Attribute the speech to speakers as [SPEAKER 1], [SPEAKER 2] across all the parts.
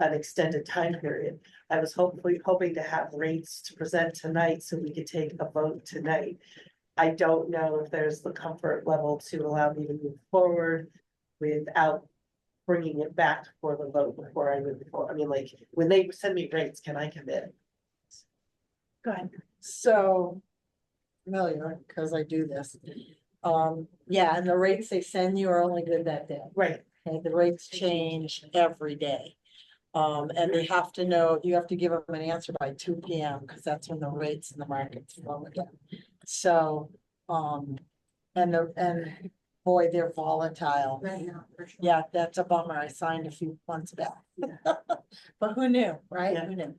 [SPEAKER 1] an extended time period. I was hopefully hoping to have rates to present tonight so we could take a vote tonight. I don't know if there's the comfort level to allow me to move forward without bringing it back for the vote before I move forward. I mean, like, when they send me rates, can I commit?
[SPEAKER 2] Go ahead.
[SPEAKER 3] So. Familiar, because I do this. Um, yeah, and the rates they send you are only good that day.
[SPEAKER 1] Right,
[SPEAKER 3] Okay, the rates change every day. Um, and they have to know, you have to give them an answer by two P M, because that's when the rates in the markets flow again. So, um, and the, and boy, they're volatile. Yeah, that's a bummer. I signed a few months back. But who knew, right?
[SPEAKER 1] Yeah.
[SPEAKER 3] Who knew?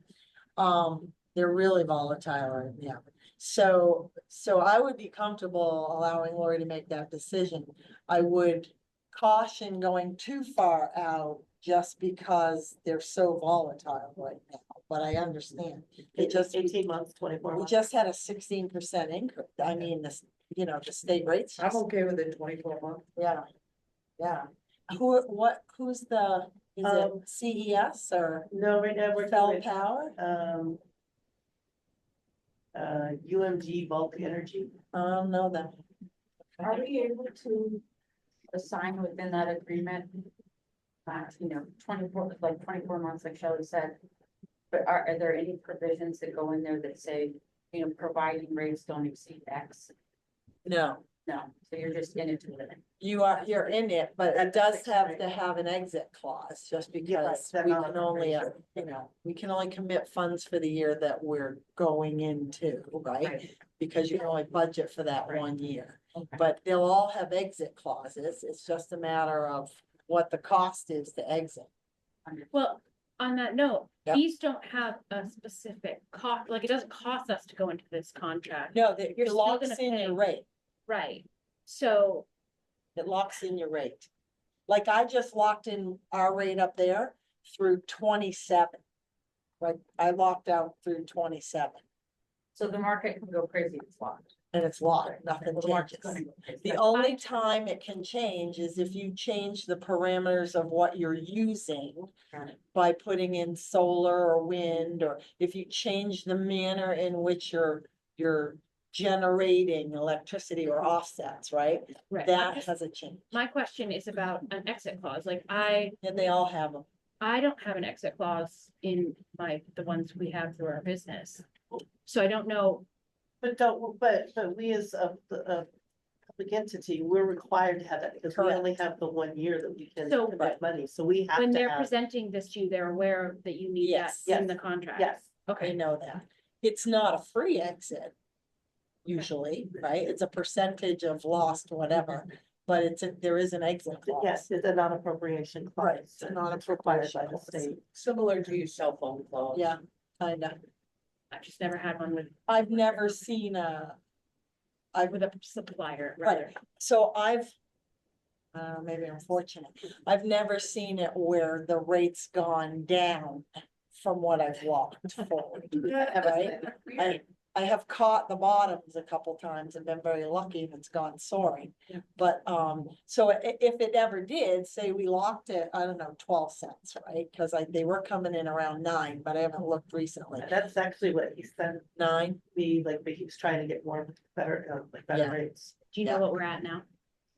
[SPEAKER 3] Um, they're really volatile, yeah. So, so I would be comfortable allowing Lori to make that decision. I would caution going too far out just because they're so volatile right now, but I understand. It just, we
[SPEAKER 1] eighteen months, twenty-four months.
[SPEAKER 3] just had a sixteen percent increase. I mean, this, you know, the state rates. just-
[SPEAKER 2] okay with it twenty-four month.
[SPEAKER 3] yeah, yeah. Who, what, who's the, is
[SPEAKER 1] Um,
[SPEAKER 3] it CES or
[SPEAKER 1] No, right now we're
[SPEAKER 3] Fell
[SPEAKER 1] doing,
[SPEAKER 3] Power?
[SPEAKER 1] um. Uh, UMG bulk energy.
[SPEAKER 3] I don't know them.
[SPEAKER 4] Are we able to assign within that agreement? Uh, you know, twenty-four, like twenty-four months, like Shelley said. But are, are there any provisions that go in there that say, you know, providing rates don't exceed X?
[SPEAKER 3] No,
[SPEAKER 4] No, so you're just in it to win it.
[SPEAKER 3] you are, you're in it, but it does
[SPEAKER 1] six,
[SPEAKER 3] have
[SPEAKER 1] right?
[SPEAKER 3] to have an exit clause, just
[SPEAKER 1] Yeah, right,
[SPEAKER 3] because
[SPEAKER 1] that
[SPEAKER 3] we
[SPEAKER 1] I'll
[SPEAKER 3] can only,
[SPEAKER 1] raise
[SPEAKER 3] uh, you know, we can only commit funds for the year that we're going into, right?
[SPEAKER 4] Right.
[SPEAKER 3] Because you can only budget for that
[SPEAKER 4] Right.
[SPEAKER 3] one year.
[SPEAKER 4] Okay.
[SPEAKER 3] But they'll all have exit clauses. It's just a matter of what the cost is to exit.
[SPEAKER 2] Well, on that note,
[SPEAKER 3] Yeah.
[SPEAKER 2] these don't have a specific cost, like it doesn't cost us to go into this contract,
[SPEAKER 3] No, that
[SPEAKER 2] You're
[SPEAKER 3] it
[SPEAKER 2] still
[SPEAKER 3] locks
[SPEAKER 2] gonna
[SPEAKER 3] in
[SPEAKER 2] pay.
[SPEAKER 3] your rate.
[SPEAKER 2] right? So,
[SPEAKER 3] It locks in your rate. Like I just locked in our rate up there through twenty-seven. Like I locked out through twenty-seven
[SPEAKER 4] So the market can go crazy, it's locked.
[SPEAKER 3] and it's locked, nothing
[SPEAKER 4] The market's gonna
[SPEAKER 3] changes.
[SPEAKER 4] go crazy.
[SPEAKER 3] The only time it can change is if you change the parameters of what you're using
[SPEAKER 4] Got it.
[SPEAKER 3] by putting in solar or wind, or if you change the manner in which you're, you're generating electricity or offsets, right?
[SPEAKER 2] right. I'm
[SPEAKER 3] That
[SPEAKER 2] just-
[SPEAKER 3] has a change
[SPEAKER 2] My question is about an exit clause, like I,
[SPEAKER 3] and they all have them.
[SPEAKER 2] I don't have an exit clause in my, the ones we have through our business. So I don't know,
[SPEAKER 1] But don't, but, but we as a, a public entity, we're required to have that because we
[SPEAKER 3] Correct.
[SPEAKER 1] only have the one year that we can
[SPEAKER 2] So-
[SPEAKER 1] commit money, so we have
[SPEAKER 2] when
[SPEAKER 1] to
[SPEAKER 2] they're
[SPEAKER 1] have.
[SPEAKER 2] presenting this to you, they're aware that you need that
[SPEAKER 3] Yes.
[SPEAKER 2] in the contract.
[SPEAKER 1] Yes,
[SPEAKER 3] I
[SPEAKER 2] Okay,
[SPEAKER 3] know that. It's not a free exit. Usually, right? It's a percentage of lost whatever, but it's, a- there is an exit clause.
[SPEAKER 1] yes, it's a non-appropriation clause.
[SPEAKER 3] Right, it's a
[SPEAKER 1] required
[SPEAKER 3] non-appropriation
[SPEAKER 1] by the
[SPEAKER 3] clause.
[SPEAKER 1] state.
[SPEAKER 4] Similar to your cell phone clause.
[SPEAKER 3] Yeah, kinda.
[SPEAKER 2] I've just never had one with,
[SPEAKER 3] I've never seen a,
[SPEAKER 2] with a supplier,
[SPEAKER 3] Right.
[SPEAKER 2] rather.
[SPEAKER 3] so I've. Uh, maybe I'm fortunate. I've never seen it where the rate's gone down from what I've locked forward. Right? I, I have caught the bottoms a couple times and been very lucky if it's gone soaring.
[SPEAKER 2] Yeah.
[SPEAKER 3] But, um, so i- if it ever did, say we locked it, I don't know, twelve cents, right? Cause I, they were coming in around nine, but I haven't looked recently,
[SPEAKER 1] That's actually what he sent
[SPEAKER 3] nine,
[SPEAKER 1] me, like, but he was trying to get more, better, uh, like,
[SPEAKER 3] Yeah.
[SPEAKER 1] better rates.
[SPEAKER 2] Do you know what we're at now?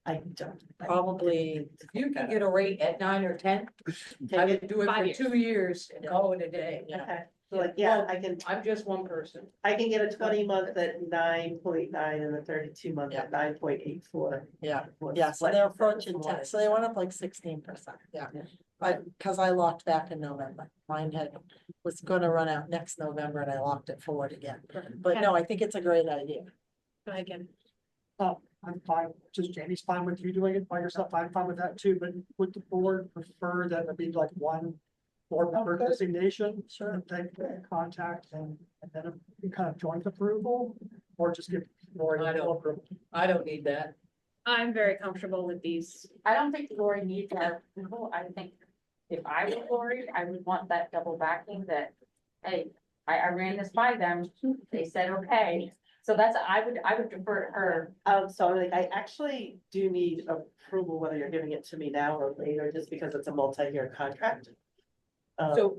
[SPEAKER 1] I don't.
[SPEAKER 3] probably.
[SPEAKER 5] You can get a rate at nine or ten. I
[SPEAKER 1] Okay,
[SPEAKER 5] would do it
[SPEAKER 2] Five
[SPEAKER 5] for
[SPEAKER 2] years.
[SPEAKER 5] two years and
[SPEAKER 3] Yeah.
[SPEAKER 5] call it a day.
[SPEAKER 3] Yeah.
[SPEAKER 1] okay. So, Like, yeah,
[SPEAKER 5] Well,
[SPEAKER 1] I can,
[SPEAKER 5] I'm just one person.
[SPEAKER 1] I can get a twenty month at nine point nine and a thirty-two month at nine point eight four.
[SPEAKER 3] Yeah, Yeah, so they're approaching ten, so they went up like sixteen percent, yeah.
[SPEAKER 1] Yeah.
[SPEAKER 3] But, cause I locked back in November, mine had, was gonna run out next November and I locked it forward again. But no, I think it's a great idea.
[SPEAKER 2] Go ahead, Kevin.
[SPEAKER 6] I'm fine, just Jamie's fine with you doing it by yourself, I'm fine with that too, but would the board prefer that it be like one board member
[SPEAKER 3] Okay.
[SPEAKER 6] designation?
[SPEAKER 3] Sure.
[SPEAKER 6] They contact and, and then a kind of joint approval, or just give Lori
[SPEAKER 5] I don't-
[SPEAKER 6] full approval?
[SPEAKER 5] I don't need that.
[SPEAKER 2] I'm very comfortable with these.
[SPEAKER 4] I don't think Lori needs that approval. I think if I were Lori, I would want that double backing that, hey, I, I ran this by them, they said, okay. So that's, I would, I would defer to her.
[SPEAKER 1] Um, so I'm like, I actually do need approval, whether you're giving it to me now or later, just because it's a multi-year contract. Um,
[SPEAKER 5] So